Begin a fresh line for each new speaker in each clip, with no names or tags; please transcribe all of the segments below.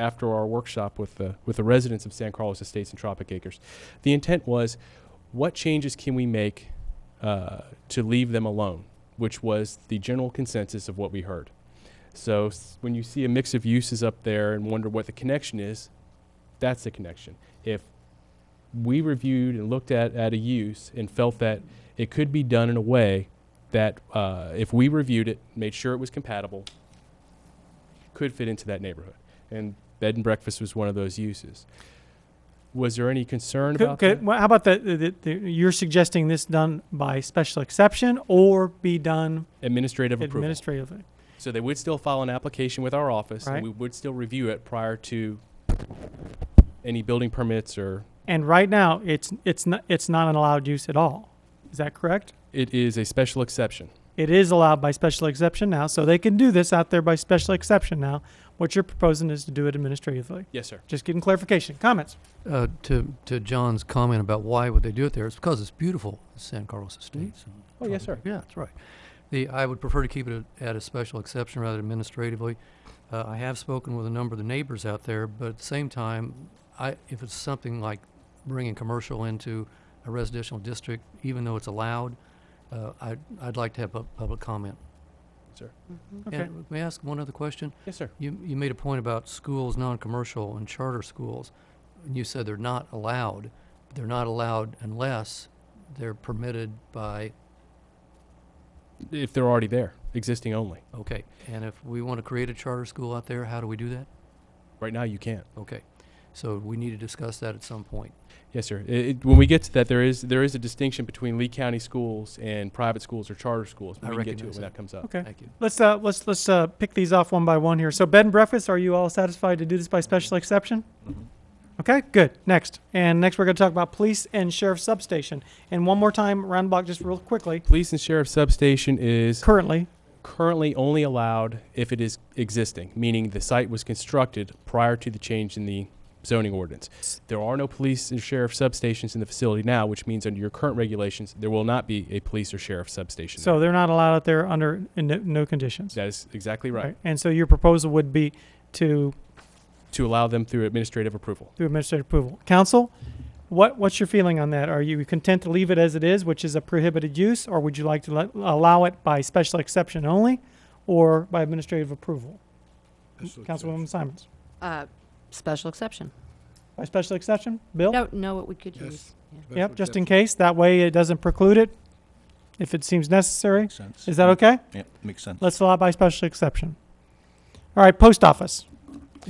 after our workshop with the with the residents of San Carlos Estates and Tropic Acres. The intent was, what changes can we make uh, to leave them alone, which was the general consensus of what we heard. So s- when you see a mix of uses up there and wonder what the connection is, that's the connection. If we reviewed and looked at, at a use and felt that it could be done in a way that uh, if we reviewed it, made sure it was compatible, could fit into that neighborhood. And bed and breakfast was one of those uses. Was there any concern
Could-
about
could-
that?
well, how about the, the, the, you're suggesting this done by special exception or be done
administrative approval?
administratively?
So they would still file an application with our office,
Right.
and we would still review it prior to any building permits or,
And right now, it's it's not it's not an allowed use at all. Is that correct?
it is a special exception.
It is allowed by special exception now, so they can do this out there by special exception now. What you're proposing is to do it administratively.
Yes, sir.
Just getting clarification. Comments?
Uh, to to John's comment about why would they do it there, it's because it's beautiful, San Carlos Estates. and
Oh, yes, sir.
tropical- Yeah, that's right. The I would prefer to keep it at- at a special exception rather than administratively. Uh, I have spoken with a number of the neighbors out there, but at the same time, I if it's something like bringing commercial into a residential district, even though it's allowed, uh, I I'd like to have pub- public comment.
Okay.
And may I ask one other question?
Yes, sir.
You, you made a point about schools, non-commercial and charter schools, and you said they're not allowed. They're not allowed unless they're permitted by,
If they're already there, existing only.
okay, and if we want to create a charter school out there, how do we do that?
Right now, you can't.
Okay, so we need to discuss that at some point.
Yes, sir. I- it- when we get to that, there is, there is a distinction between Lee County schools and private schools or charter schools. but
I
We can get to it
recognize
when
that.
that comes up.
Okay.
Thank you.
Let's uh let's let's uh pick these off one by one here. So bed and breakfast, are you all satisfied to do this by special exception? Okay, good. Next. And next we're gonna talk about police and sheriff's substation. And one more time, round the block just real quickly.
Police and sheriff's substation is
Currently,
currently only allowed if it is existing, meaning the site was constructed prior to the change in the zoning ordinance. There are no police and sheriff substations in the facility now, which means under your current regulations, there will not be a police or sheriff substation.
so they're not allowed out there under in no, no conditions.
That is exactly right.
And so your proposal would be to
To allow them through administrative approval.
through administrative approval. Council, what what's your feeling on that? Are you content to leave it as it is, which is a prohibited use, or would you like to let, allow it by special exception only, or by administrative approval? Councilwoman Simons.
Uh, Special exception.
By special exception, Bill?
Don't know what we could
Yes.
use. Yeah.
Yep, just in case. That way it doesn't preclude it if it seems necessary.
Makes sense.
Is that okay?
Yeah, makes sense.
Let's allow by special exception. All right, post office.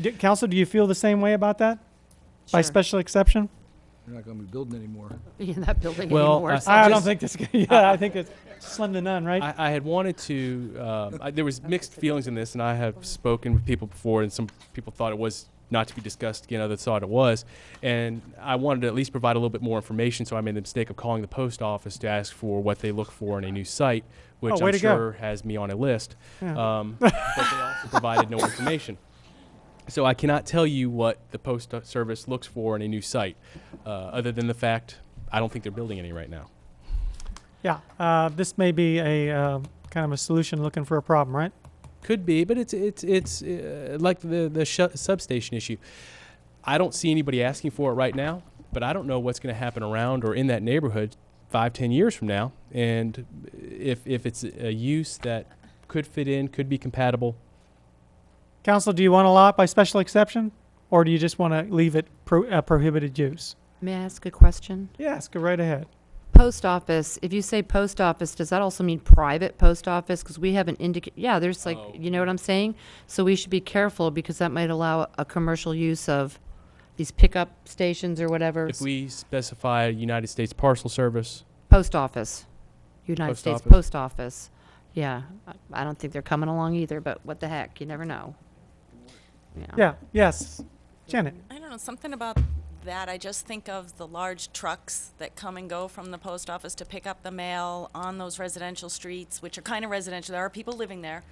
D- Council, do you feel the same way about that? By
Sure.
special exception?
You're not gonna be building anymore.
In that building
Well,
anymore.
I-
so
I don't
just-
think this, yeah, I think it's slim to none, right?
I, I had wanted to, um, I, there was mixed feelings in this, and I have spoken with people before, and some people thought it was not to be discussed again, others thought it was. And I wanted to at least provide a little bit more information, so I made the mistake of calling the post office to ask for what they look for in a new site,
Oh,
which
way
I'm
to go.
sure has me on a list.
Yeah.
Um, but they also provided no information. So I cannot tell you what the post service looks for in a new site, uh, other than the fact I don't think they're building any right now.
Yeah, uh, this may be a, uh, kind of a solution looking for a problem, right?
Could be, but it's it's it's uh, like the the sh- substation issue. I don't see anybody asking for it right now, but I don't know what's going to happen around or in that neighborhood five, ten years from now, and if if it's a use that could fit in, could be compatible.
Council, do you want to allow it by special exception? Or do you just want to leave it pro- uh, prohibited use?
May I ask a question?
Yes, go right ahead.
Post office, if you say post office, does that also mean private post office? Because we haven't indicated, yeah, there's like,
Oh.
you know what I'm saying? So we should be careful because that might allow a commercial use of these pickup stations or whatever.
If we specify United States Parcel Service,
Post office, United
Post
States
office.
Post Office. Yeah, I- I don't think they're coming along either, but what the heck, you never know.
Yeah, yes. Janet,
I don't know, something about that. I just think of the large trucks that come and go from the post office to pick up the mail on those residential streets, which are kind of residential. There are people living there.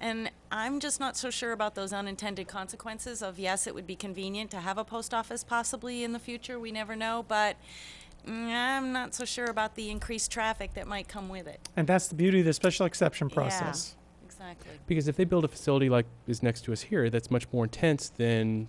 And I'm just not so sure about those unintended consequences of yes, it would be convenient to have a post office possibly in the future. We never know. But mm, I'm not so sure about the increased traffic that might come with it.
and that's the beauty of the special exception
Yeah.
process.
Exactly.
because if they build a facility like is next to us here, that's much more intense than